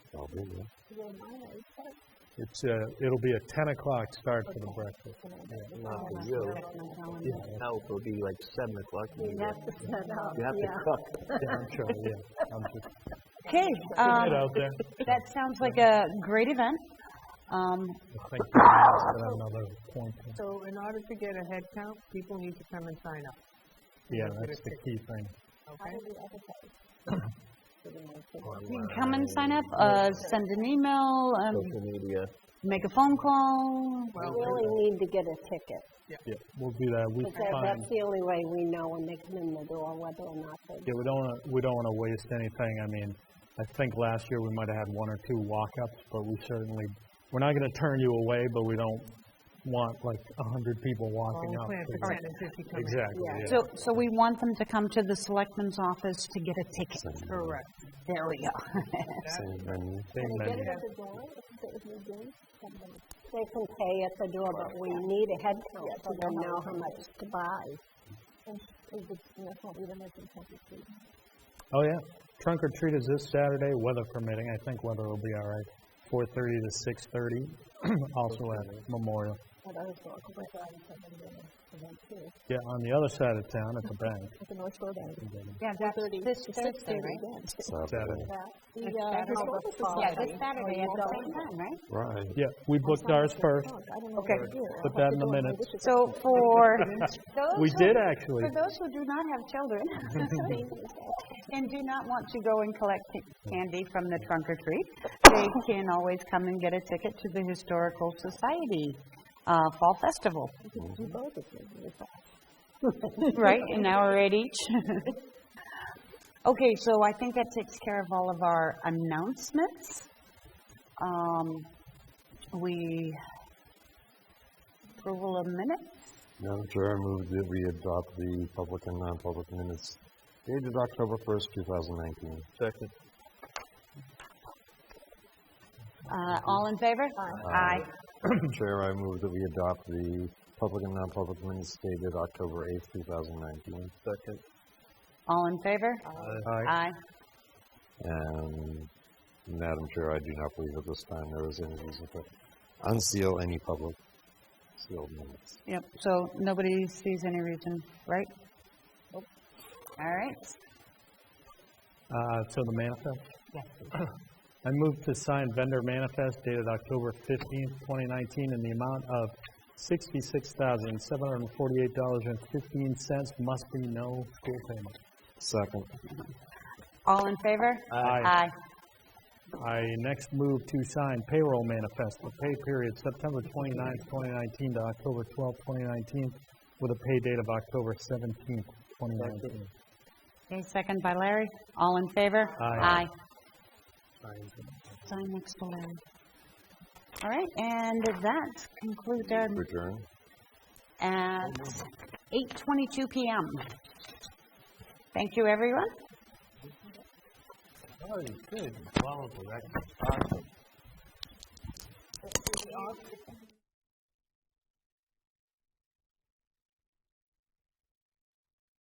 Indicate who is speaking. Speaker 1: probably, yeah.
Speaker 2: Well, mine is set,
Speaker 1: It's, uh, it'll be a ten o'clock start for the
Speaker 2: Okay.
Speaker 1: breakfast.
Speaker 2: and I-
Speaker 1: Yeah,
Speaker 2: it's
Speaker 3: not
Speaker 2: on
Speaker 3: for
Speaker 2: my-
Speaker 3: you.
Speaker 2: it's on my calendar.
Speaker 1: Yeah,
Speaker 3: Now it will be like seven o'clock.
Speaker 2: You have to set up,
Speaker 3: You have to
Speaker 2: yeah.
Speaker 3: cook.
Speaker 1: yeah, I'm sure, yeah. I'm sure.
Speaker 4: Okay, um,
Speaker 1: Get out there.
Speaker 4: that sounds like a great event.
Speaker 1: I
Speaker 4: Um,
Speaker 1: think we must have another point.
Speaker 5: So in order to get a head count, people need to come and sign up,
Speaker 1: Yeah, that's the key thing.
Speaker 2: How
Speaker 5: okay?
Speaker 2: do we advertise? For the next one?
Speaker 4: you can come and sign up, uh, send an email, um,
Speaker 3: Social media.
Speaker 4: make a phone call.
Speaker 5: Well,
Speaker 2: We really need to get a ticket,
Speaker 1: Yeah, we'll do that. We
Speaker 2: because
Speaker 1: find,
Speaker 2: that's the only way we know when they come in the door whether or not they.
Speaker 1: yeah, we don't wanna, we don't wanna waste anything. I mean, I think last year we might have had one or two walk-ups, but we certainly, we're not gonna turn you away, but we don't want like a hundred people
Speaker 5: well,
Speaker 1: walking
Speaker 5: we
Speaker 1: up.
Speaker 5: plan for
Speaker 1: to-
Speaker 5: ten and fifty coming.
Speaker 1: Exactly,
Speaker 2: Yeah.
Speaker 1: yeah.
Speaker 4: So, so we want them to come to the selectman's office to get a ticket.
Speaker 5: Correct.
Speaker 4: There we go.
Speaker 3: Same venue.
Speaker 1: Same
Speaker 2: They get
Speaker 1: menu.
Speaker 2: it at the door, if they- if we do, then they- They can pay at the door, but we need a head count so they know how much to buy. And is it, that's what we don't make
Speaker 1: Oh, yeah. Trunk or treat is this Saturday, weather permitting. I think weather will be all right. 4:30 to 6:30, also at Memorial.
Speaker 2: But I was going to put that in something there, and then too,
Speaker 1: Yeah, on the other side of town at the bank.
Speaker 2: at the North Shore Bank.
Speaker 1: Mm-hmm.
Speaker 4: Yeah, that's this Thursday, right?
Speaker 1: Saturday.
Speaker 2: The, uh, historical
Speaker 4: Yeah,
Speaker 2: society.
Speaker 4: this Saturday
Speaker 2: Oh,
Speaker 4: at the same time, right?
Speaker 3: Right.
Speaker 1: Yeah, we booked ours first.
Speaker 4: Okay.
Speaker 1: Put that in the minutes.
Speaker 4: So for those
Speaker 1: We
Speaker 4: who-
Speaker 1: did actually.
Speaker 4: For those who do not have children and do not want to go and collect ca- candy from the trunk or treat, they can always come and get a ticket to the Historical Society uh, Fall Festival.
Speaker 2: Ну,
Speaker 4: Right, an hour at each. Okay, so I think that takes care of all of our announcements. Um, We, approval of minutes?
Speaker 3: Madam Chair, I move that we adopt the public and non-public minutes dated October first, two thousand nineteen. Second.
Speaker 4: Uh, All in favor? Aye.
Speaker 3: Chair, I move that we adopt the public and non-public minutes dated October eighth, two thousand nineteen. Second.
Speaker 4: All in favor?
Speaker 1: Aye.
Speaker 4: Aye.
Speaker 3: And Madam Chair, I do not believe at this time there is any reason to unseal any public sealed minutes.
Speaker 4: Yep, so nobody sees any reason, right? All right,
Speaker 1: Uh, So the manifest? I move to sign vendor manifest dated October 15th, 2019, in the amount of $66,748.15 must be no school payment.
Speaker 3: Second.
Speaker 4: all in favor?
Speaker 1: Aye. I next move to sign payroll manifest for pay period September 29th, 2019 to October 12th, 2019, with a pay date of October 17th, 2019.
Speaker 4: Okay, second by Larry, all in favor?
Speaker 1: Aye.
Speaker 4: Sign next to Larry. All right, and that concludes our,
Speaker 3: Return.
Speaker 4: at 8:22 PM. Thank you, everyone.